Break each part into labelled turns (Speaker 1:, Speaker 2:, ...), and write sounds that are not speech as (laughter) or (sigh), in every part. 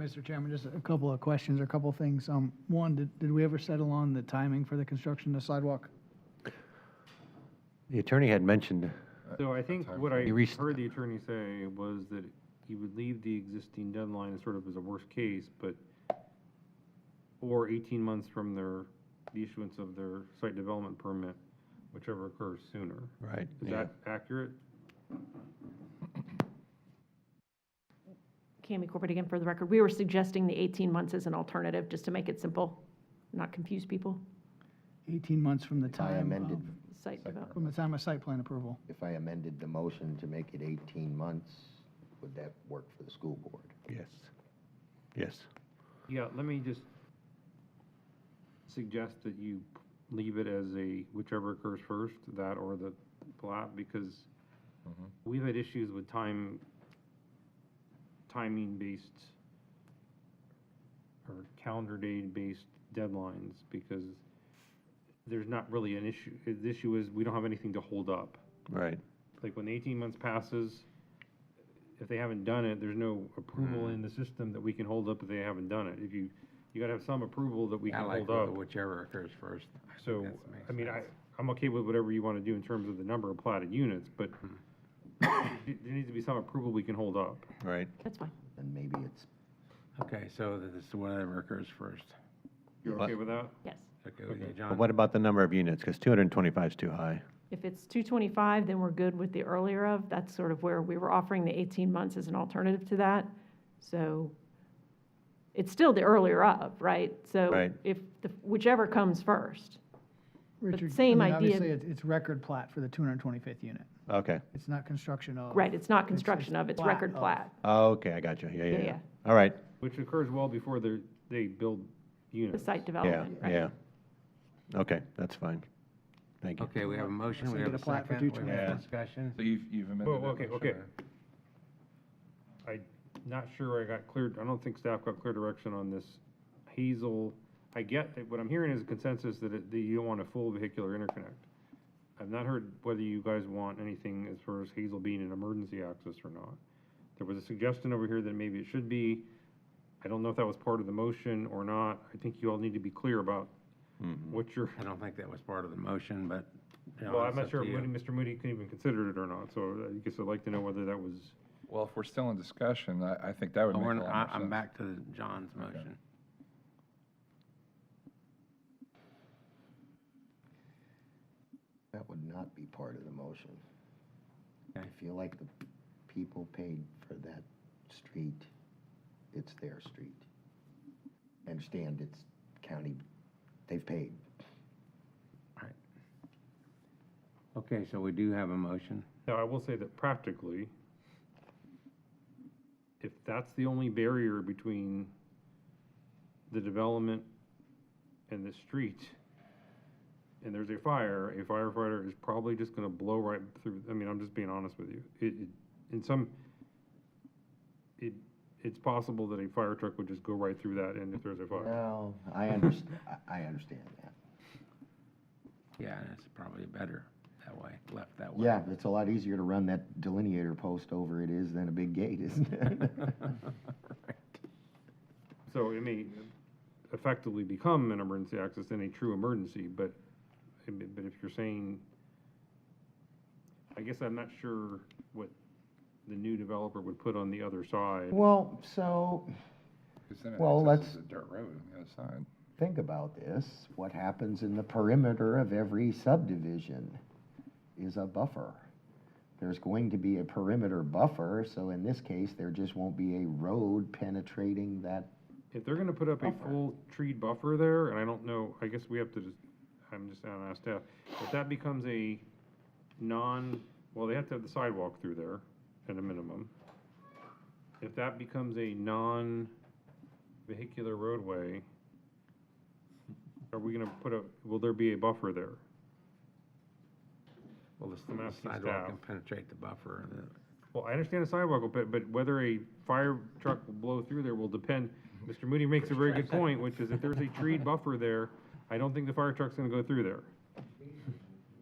Speaker 1: Mr. Chairman, just a couple of questions or a couple of things. Um, One, did- did we ever settle on the timing for the construction of the sidewalk?
Speaker 2: The attorney had mentioned,
Speaker 3: So I think what I
Speaker 2: He reached-
Speaker 3: heard the attorney say was that he would leave the existing deadline as sort of as a worst case, but, or eighteen months from their, the issuance of their site development permit, whichever occurs sooner.
Speaker 2: right?
Speaker 3: Is
Speaker 2: yeah.
Speaker 3: that accurate?
Speaker 4: Cami Corbett again for the record. We were suggesting the 18 months as an alternative, just to make it simple, not confuse people.
Speaker 1: 18 months from the
Speaker 5: I
Speaker 1: time,
Speaker 5: amended,
Speaker 1: um,
Speaker 4: Site development.
Speaker 1: from the time of site plan approval.
Speaker 5: if I amended the motion to make it 18 months, would that work for the school board?
Speaker 2: Yes. Yes.
Speaker 3: Yeah, let me just suggest that you leave it as a whichever occurs first, that or the plat, because we've had issues with time, timing-based or calendar day-based deadlines, because there's not really an issue, the issue is we don't have anything to hold up
Speaker 2: Right.
Speaker 3: like when the eighteen months passes, if they haven't done it, there's no approval
Speaker 6: Hmm.
Speaker 3: in the system that we can hold up if they haven't done it. If you, you gotta have some approval that we can
Speaker 6: I like
Speaker 3: hold
Speaker 6: the
Speaker 3: up.
Speaker 6: whichever occurs first. I think
Speaker 3: So,
Speaker 6: that's makes
Speaker 3: I mean, I,
Speaker 6: sense.
Speaker 3: I'm okay with whatever you wanna do in terms of the number of platted units, but
Speaker 6: Hmm.
Speaker 3: there (coughs) there needs to be some approval we can hold up.
Speaker 2: Right.
Speaker 4: That's fine.
Speaker 5: And maybe it's,
Speaker 6: Okay, so that it's whatever occurs first.
Speaker 3: You're
Speaker 2: But-
Speaker 3: okay with that?
Speaker 4: Yes.
Speaker 6: Okay, okay,
Speaker 2: But
Speaker 6: John.
Speaker 2: what about the number of units? Because 225 is too high.
Speaker 4: If it's 225, then we're good with the earlier of. That's sort of where we were offering the 18 months as an alternative to that. So it's still the earlier of, right? So
Speaker 2: Right.
Speaker 4: if, the whichever comes first.
Speaker 1: Richard, I
Speaker 4: same
Speaker 1: mean,
Speaker 4: idea-
Speaker 1: Obviously, it's- it's record plat for the 225th unit.
Speaker 2: Okay.
Speaker 1: It's not construction of.
Speaker 4: Right, it's not
Speaker 1: Oh, It's- it's
Speaker 4: construction of, it's
Speaker 1: plat
Speaker 4: record
Speaker 1: of.
Speaker 4: plat.
Speaker 2: Okay, I got you. Yeah, yeah,
Speaker 4: Yeah,
Speaker 2: yeah.
Speaker 4: yeah.
Speaker 2: All right.
Speaker 3: Which occurs well before they, they build
Speaker 4: The
Speaker 3: units.
Speaker 4: site
Speaker 2: Yeah,
Speaker 4: development, right?
Speaker 2: yeah. Okay, that's fine. Thank you.
Speaker 6: Okay, we have a motion,
Speaker 1: So
Speaker 6: we
Speaker 1: you
Speaker 6: have a
Speaker 1: get a plat for
Speaker 6: second, we have a
Speaker 1: 225.
Speaker 6: discussion.
Speaker 7: So you've, you've amended
Speaker 3: Well,
Speaker 7: that
Speaker 3: okay,
Speaker 7: motion,
Speaker 3: okay.
Speaker 7: right?
Speaker 3: I, not sure I got clear, I don't think staff got clear direction on this Hazel. I get, that what I'm hearing is a consensus that it, that you don't want a full vehicular interconnect. I've not heard whether you guys want anything as far as Hazel being an emergency access or not. There was a suggestion over here that maybe it should be. I don't know if that was part of the motion or not. I think you all need to be clear about what you're,
Speaker 6: I don't think that was part of the motion, but, you know,
Speaker 3: well, I'm
Speaker 6: it's
Speaker 3: not
Speaker 6: up
Speaker 3: sure
Speaker 6: to
Speaker 3: if
Speaker 6: you.
Speaker 3: Moody- Mr. Moody could even consider it or not, so I guess I'd like to know whether that was.
Speaker 7: Well, if we're still in discussion, I, I think that would
Speaker 6: But
Speaker 7: make a
Speaker 6: Oh, we're
Speaker 7: lot
Speaker 6: not-
Speaker 7: more
Speaker 6: I-
Speaker 7: sense.
Speaker 6: I'm back to the- John's motion.
Speaker 5: that would not be part of the motion. I
Speaker 6: Okay.
Speaker 5: feel like the people paid for that street, it's their street. I Understand it's county, they've paid.
Speaker 6: Okay, so we do have a motion.
Speaker 3: Now, I will say that practically, if that's the only barrier between the development and the street, and there's a fire, a firefighter is probably just gonna blow right through, I mean, I'm just being honest with you. It, it, in some, it, it's possible that a fire truck would just go right through that end if there's a fire.
Speaker 5: No, (laughs) I underst, I, I understand that.
Speaker 6: Yeah, and it's probably better that way, left that way.
Speaker 5: Yeah, but it's a lot easier to run that delineator post over it is than a big gate, isn't it?
Speaker 3: So it may effectively become an emergency access in a true emergency, but, but if you're saying, I guess I'm not sure what the new developer would put on the other side.
Speaker 5: (laughs) Well, so,
Speaker 7: 'Cause then it
Speaker 5: Well,
Speaker 7: accesses
Speaker 5: let's-
Speaker 7: a dirt road on the other side.
Speaker 5: think about this, what happens in the perimeter of every subdivision is a buffer. There's going to be a perimeter buffer, so in this case, there just won't be a road penetrating that.
Speaker 3: If they're gonna put up a
Speaker 5: Buffer.
Speaker 3: full tree buffer there, and I don't know, I guess we have to just, I'm just, I don't know, staff, if that becomes a non, well, they have to have the sidewalk through there at a minimum. If that becomes a non-vehicular roadway, are we gonna put a, will there be a buffer there?
Speaker 6: (laughs) Well, the
Speaker 3: I'm
Speaker 6: the
Speaker 3: asking
Speaker 6: sidewalk
Speaker 3: staff.
Speaker 6: can penetrate the buffer, and the-
Speaker 3: Well, I understand the sidewalk, but, but whether a fire truck will blow through there will depend. Mr. Moody makes a very good point, which is if there's a tree buffer there, I don't think the fire truck's gonna go through there.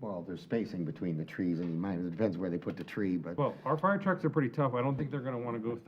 Speaker 5: Well, there's spacing between the trees, and you might, it depends where they put the tree, but.
Speaker 3: Well, our fire trucks are pretty tough. I don't think they're gonna wanna go through